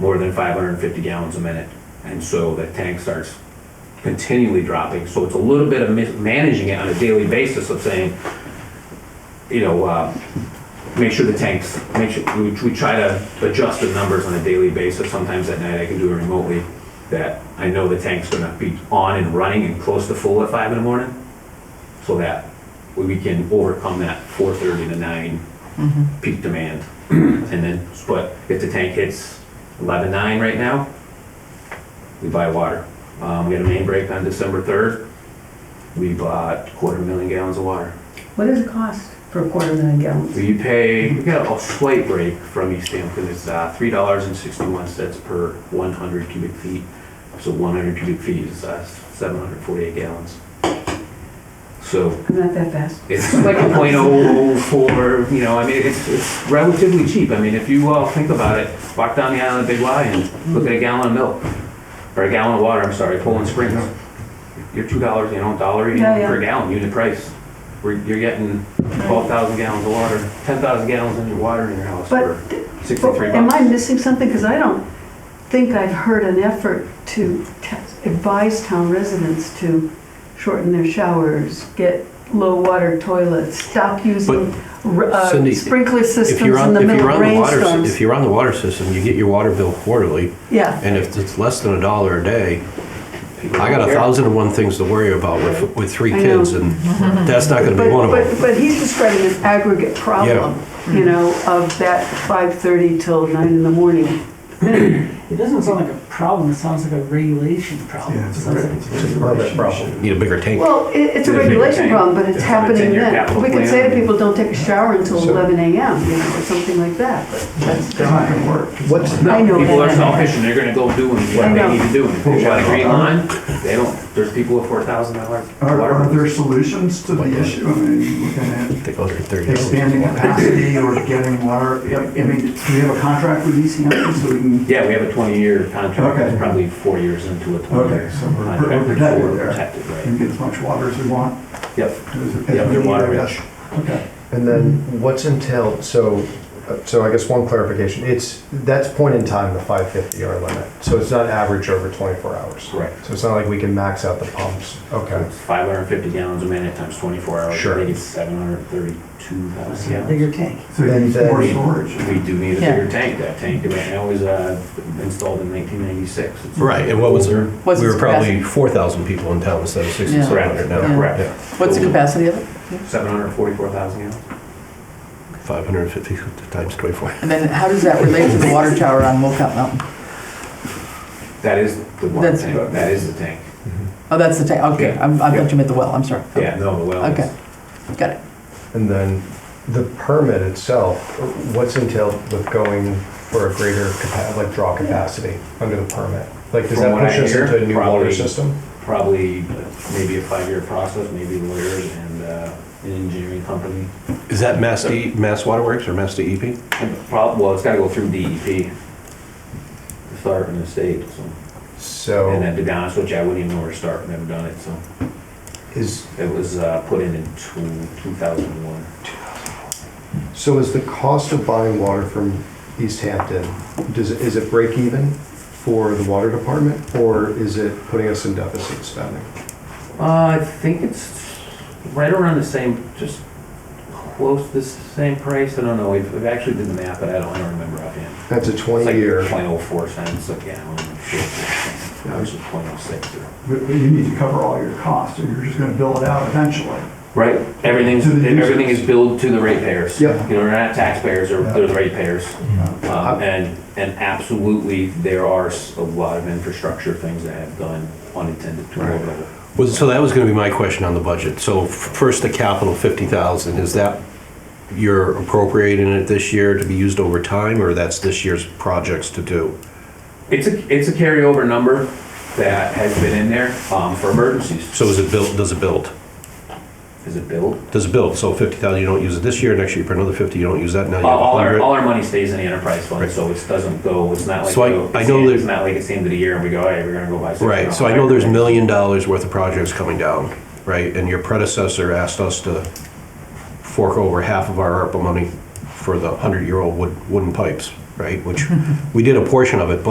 more than 550 gallons a minute. And so that tank starts continually dropping. So it's a little bit of mis- managing it on a daily basis of saying, you know, uh, make sure the tanks, make sure, we, we try to adjust the numbers on a daily basis. Sometimes at night I can do it remotely that I know the tank's gonna be on and running and close to full at five in the morning. So that we can overcome that 4:30 to nine peak demand. And then, but if the tank hits eleven nine right now, we buy water. Um, we had a main break on December third. We bought quarter million gallons of water. What does it cost for a quarter million gallons? We pay, we got a slight break from East Hampton, it's uh, three dollars and sixty-one cents per one hundred cubic feet. So one hundred cubic feet is uh, seven hundred forty-eight gallons. So I'm not that fast. it's like a point oh four, you know, I mean, it's, it's relatively cheap. I mean, if you all think about it, walk down the island of Big Y and look at a gallon of milk, or a gallon of water, I'm sorry, Poland Springs. You're two dollars, you know, dollar Oh, Yeah, yeah. per gallon unit price. We're, you're getting twelve thousand gallons of water, ten thousand gallons of your water in your house for But, th- but sixty-three am I bucks. missing something? Because I don't think I've heard an effort to t- advise town residents to shorten their showers, get low water toilets, stop using r- uh, Cindy, sprinkler systems If you're in on, the if middle you're of on the water, s- if rainstorms. you're on the water system, you get your water bill quarterly, Yeah, and if it's less than a dollar a day, People I don't got a care. thousand and one things to worry about with, with three I kids, know. and that's not gonna be but, one of but, them. but he's describing an aggregate problem, you know, of that 5:30 till 9 in the morning. It doesn't sound like a problem, it sounds like a regulation problem. Yeah, it's It sounds like- Need a bigger tank. Well, it, it's a There's a regulation tank. problem, but it's It's happening in your then. capital We could say to plan. people, don't take a shower until So- eleven AM, you know, or something like that, but that's. What's, I No, know people are that. selfish and they're gonna go doing what I know. they need to do. And if they want a green line, they don't. There's people with four thousand dollar are, water are bills. there solutions to the issue? I mean, looking at Take those are thirty expanding dollars. capacity or getting water, I I mean, do we have a contract with East Hampton so we can? Yeah, we have a twenty-year contract, Okay. It's probably four years into a twenty-year Okay, so we're- contract. we're protected We're there. protected, right. And get as much water as we want? Yep, as- as yep, we they're need, I water guess. rich. Okay, And then what's entailed, so, uh, so I guess one clarification, it's, that's point in time, the 550 hour limit. So it's not average over 24 hours. Correct. So it's not like we can max out the pumps. Okay. It's five hundred and fifty gallons a minute times twenty-four hours. Sure. I think it's seven hundred and thirty-two thousand Yeah, gallons. Bigger tank. so you need Then- more storage. We do need a Yeah. bigger tank. That tank right now is, uh, installed in nineteen ninety-six. Right, and what was, there? we What's were its probably capacity? four thousand people in town instead of sixty-seven hundred Yeah. now. Correct. What's the capacity of it? Seven hundred and forty-four thousand gallons. Five hundred and fifty times twenty-four. And then how does that relate to the water tower on Wolcott Mountain? That is the one That's- tank. That is the tank. Oh, that's the tank, okay, Yeah. I'm- I Yeah. thought you meant the well, I'm sorry. Yeah, no, the well. is- Okay, got it. And then the permit itself, what's entailed with going for a greater capa, like draw capacity under the permit? Like, does From that what I push us hear, into a new probably- water system? Probably maybe a five-year process, maybe lawyers and, uh, an engineering company. Is that Mass D, Mass Waterworks or Mass E DEP? And the prob- well, it's gotta go through DEP. to Start in the state, so, So. and then to be honest with you, I wouldn't even know where to start, I've never done it, so. Is, It was, uh, put in in two, two thousand and one. so is the cost of buying water from East Hampton, does, it- is it break even for the water department? Or is it putting us in deficit spending? Uh, I think it's right around the same, just close to the same price, I don't know, we've, we've actually did the math, but I don't, I don't remember offhand. That's a It's like 20-year, Point oh four cents a gallon, I was point oh six or. But but you need to cover all your costs or you're just gonna bill it out eventually. Right, everything's, To the users. everything is billed to the ratepayers. Yep. You know, we're not taxpayers, they're, they're the ratepayers. Um, and, and absolutely, there are s- a lot of infrastructure things that have gone unintended to our level. Was, so that was gonna be my question on the budget. So f- first, the capital, fifty thousand, is that, you're appropriating it this year to be used over time, or that's this year's projects to do? It's a, it's a carryover number that has been in there, um, for emergencies. So is it built, does it build? Is it billed? Does it build? So fifty thousand, you don't use it this year, next year you put another fifty, you don't use that, now you All, all have our, a all hundred. our money stays in the enterprise fund, Right. so it doesn't go, it's not like, So I- oh, I it's know the- that- it's not like it's the end of the year and we go, hey, we're gonna go buy. six Right, so I know there's million dollars worth of projects coming down, right? And your predecessor asked us to fork over half of our ARPA money for the hundred-year-old wood, wooden pipes, right? Which, we did a portion of it, but